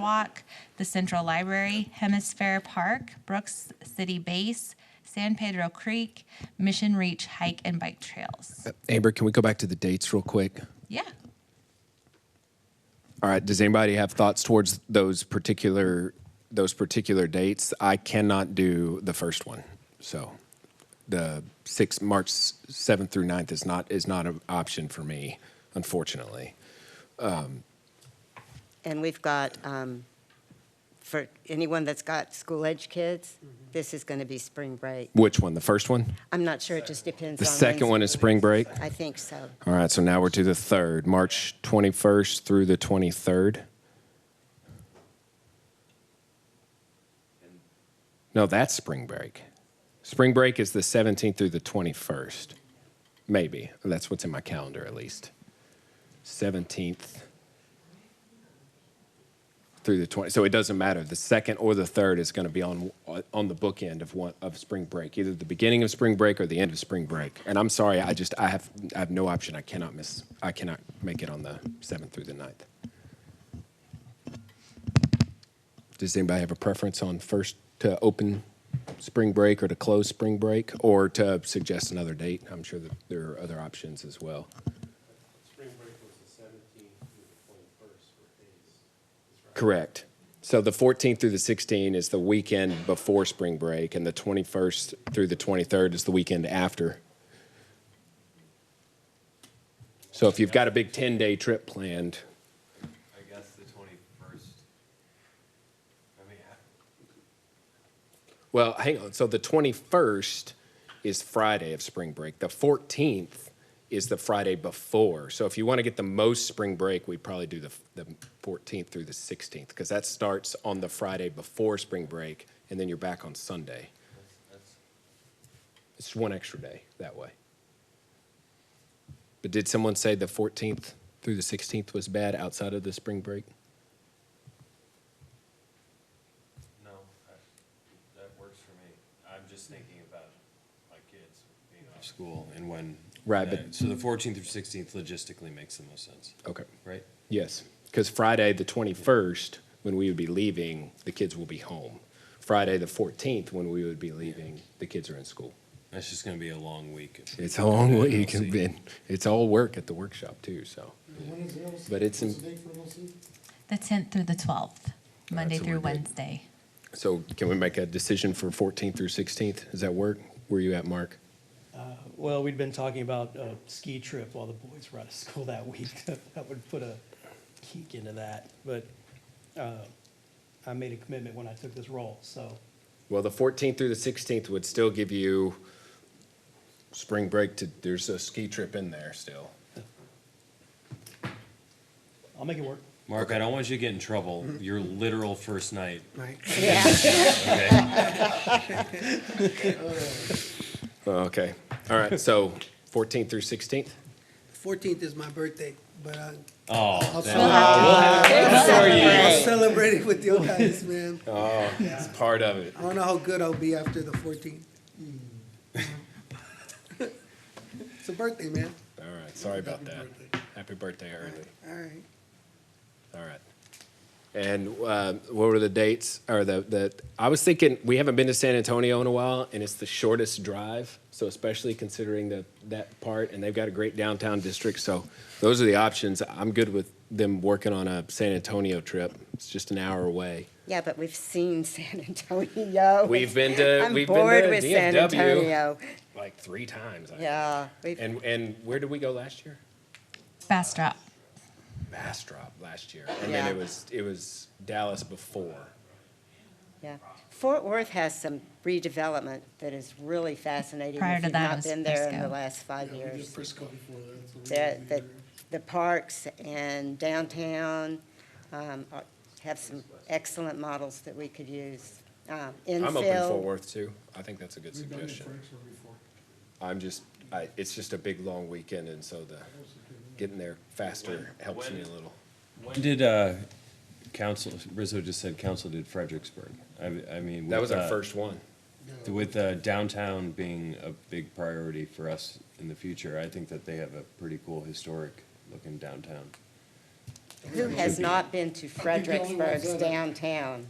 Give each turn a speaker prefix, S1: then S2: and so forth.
S1: Walk, the Central Library, Hemisphere Park, Brooks City Base, San Pedro Creek, Mission Reach Hike and Bike Trails.
S2: Amber, can we go back to the dates real quick?
S1: Yeah.
S2: All right. Does anybody have thoughts towards those particular those particular dates? I cannot do the first one, so the six March seventh through 9th is not is not an option for me, unfortunately.
S3: And we've got, um, for anyone that's got school-age kids, this is going to be spring break.
S2: Which one? The first one?
S3: I'm not sure, it just depends on.
S2: The second
S3: when's-
S2: one is spring break.
S3: I think so.
S2: All right. So now we're to the third, March twenty first through the twenty third. No, that's spring break. Spring break is the 17th through the 21st. Maybe. That's what's in my calendar, at least. 17th through the 20th. So it doesn't matter. The second or the third is going to be on, uh, on the bookend of, one, of spring break, either the beginning of spring break or the end of spring break. And I'm sorry, I just, I have, I have no option. I cannot miss, I cannot make it on the 7th through the 9th. Does anybody have a preference on first to open spring break or to close spring break or to suggest another date? I'm sure that there are other options as well.
S4: Spring break was the seventeenth through the twenty-first for days.
S2: Correct. So the 14th through the 16th is the weekend before spring break and the 21st through the 23rd is the weekend after. So if you've got a big 10-day trip planned,
S4: I guess the twenty-first. I mean, I-
S2: Well, hang on. So the 21st is Friday of spring break. The 14th is the Friday before. So if you want to get the most spring break, we'd probably do the, the 14th through the 16th because that starts on the Friday before spring break and then you're back on Sunday. It's one extra day that way. But did someone say the 14th through the 16th was bad outside of the spring break?
S4: no, I- that works for me. I'm just thinking about my kids being out of school and when.
S2: Right,
S4: that-
S2: but-
S4: So the fourteenth through sixteenth logistically makes the most sense,
S2: Okay.
S4: right?
S2: Yes, because Friday, the 21st, when we would be leaving, the kids will be home. Friday, the 14th, when we would be leaving, the kids are in school.
S4: That's just gonna be a long week. if we
S2: It's a long
S4: do
S2: way. You
S4: LC.
S2: can be, it's all work at the workshop too, so. But it's, in-
S1: The 10th through the 12th, Monday
S2: so
S1: through
S2: we're good.
S1: Wednesday.
S2: so can we make a decision for 14th through 16th? Does that work? Where you at, Mark?
S5: Well, we'd been talking about a ski trip while the boys were out of school that week. That would put a kink into that, but uh, I made a commitment when I took this role, so
S2: Well, the 14th through the 16th would still give you spring break to, there's a ski trip in there still.
S5: I'll make it work.
S4: Mark, I don't want you to get in trouble, your literal first night,
S3: Yeah,
S4: okay?
S2: Oh, Okay, all right, so 14th through 16th?
S6: 14th is my birthday, but I-
S4: Oh,
S6: I'll
S4: that-
S6: celebrate- I'll
S3: right.
S6: celebrate it with you guys, man.
S2: It's part of it.
S6: I don't know how good I'll be after the 14th. It's a birthday, man.
S2: All right, sorry about that.
S6: Happy birthday.
S2: Happy birthday early.
S6: All right.
S2: All right. And uh, what were the dates or the, the, I was thinking, we haven't been to San Antonio in a while and it's the shortest drive. So especially considering the, that part and they've got a great downtown district. So those are the options. I'm good with them working on a San Antonio trip. It's just an hour away.
S3: Yeah, but we've seen San Antonio.
S2: We've been to,
S3: I'm
S2: we've
S3: bored
S2: been
S3: with
S2: to
S3: San
S2: DFW
S3: Antonio.
S2: like three times. I-
S3: Yeah, we've-
S2: And, and where did we go last year?
S1: Bastrop.
S2: Bastrop last year, and then it
S3: Yeah.
S2: was it was Dallas before.
S3: yeah. Fort Worth has some redevelopment that is really fascinating.
S1: Prior
S3: if
S1: to
S3: you've
S1: that, it
S3: not
S1: was
S3: been there in
S1: Frisco.
S3: the last five years.
S6: Frisco before that, so we
S3: The,
S6: won't be
S3: the,
S6: there.
S3: the parks and downtown um, are- have some excellent models that we could use. Um,
S2: I'm open Fort
S3: Infill,
S2: Worth too. I think that's a good
S6: We've done it
S2: suggestion.
S6: Frisco before.
S2: I'm just I, it's just a big long weekend, and so the getting there faster helps me a little.
S4: When did, uh, council, Rizzo just said council did Fredericksburg. I, I mean.
S2: That was
S4: with,
S2: our
S4: uh,
S2: first one.
S4: With uh, downtown being a big priority for us in the future, I think that they have a pretty cool historic looking downtown.
S3: Who has not been to
S6: the only ones
S3: Fredericksburg's
S6: that are-
S3: downtown?